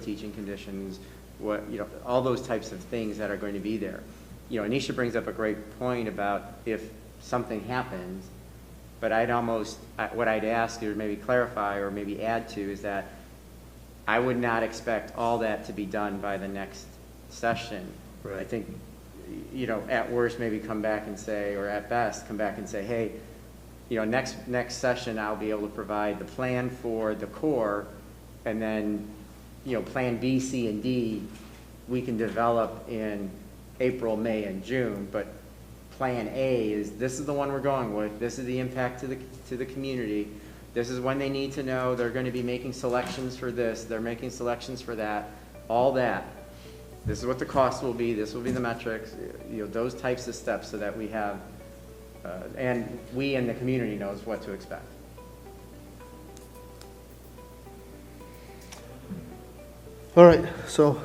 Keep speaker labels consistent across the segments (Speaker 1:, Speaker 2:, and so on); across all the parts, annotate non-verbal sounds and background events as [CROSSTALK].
Speaker 1: teaching conditions, what, you know, all those types of things that are going to be there. You know, Anisha brings up a great point about if something happens, but I'd almost, I- what I'd ask or maybe clarify or maybe add to is that I would not expect all that to be done by the next session. I
Speaker 2: Right.
Speaker 1: think, you know, at worst, maybe come back and say, or at best, come back and say, hey, you know, next, next session, I'll be able to provide the plan for the core, and then, you know, Plan B, C, and D, we can develop in April, May, and June, but Plan A is, this is the one we're going with, this is the impact to the, to the community, this is when they need to know, they're gonna be making selections for this, they're making selections for that, all that. This is what the cost will be, this will be the metrics, you know, those types of steps, so that we have uh, and we and the community knows what to expect.
Speaker 2: All right, so,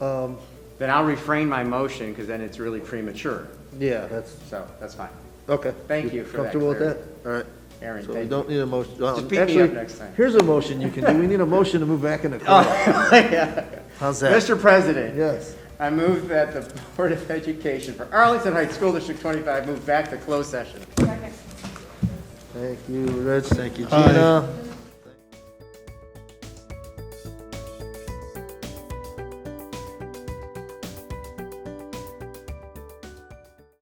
Speaker 2: um,
Speaker 1: Then I'll refrain my motion, because then it's really premature,
Speaker 2: yeah, that's,
Speaker 1: so that's fine.
Speaker 2: okay.
Speaker 1: Thank you for that
Speaker 2: Comfortable with that?
Speaker 1: clarity.
Speaker 2: All right.
Speaker 1: Aaron,
Speaker 2: So we
Speaker 1: thank
Speaker 2: don't need a motion. well,
Speaker 1: Just pick me up
Speaker 2: actually,
Speaker 1: next time. Oh,
Speaker 2: Here's a motion you can do. We need a motion to move
Speaker 1: [LAUGHS]
Speaker 2: back into closed. How's that?
Speaker 1: Mr. President,
Speaker 2: Yes.
Speaker 1: I move that the Board of Education for Arlington Heights School District 25 move back to closed session.
Speaker 2: Thank you, Rich. Thank you, Gina.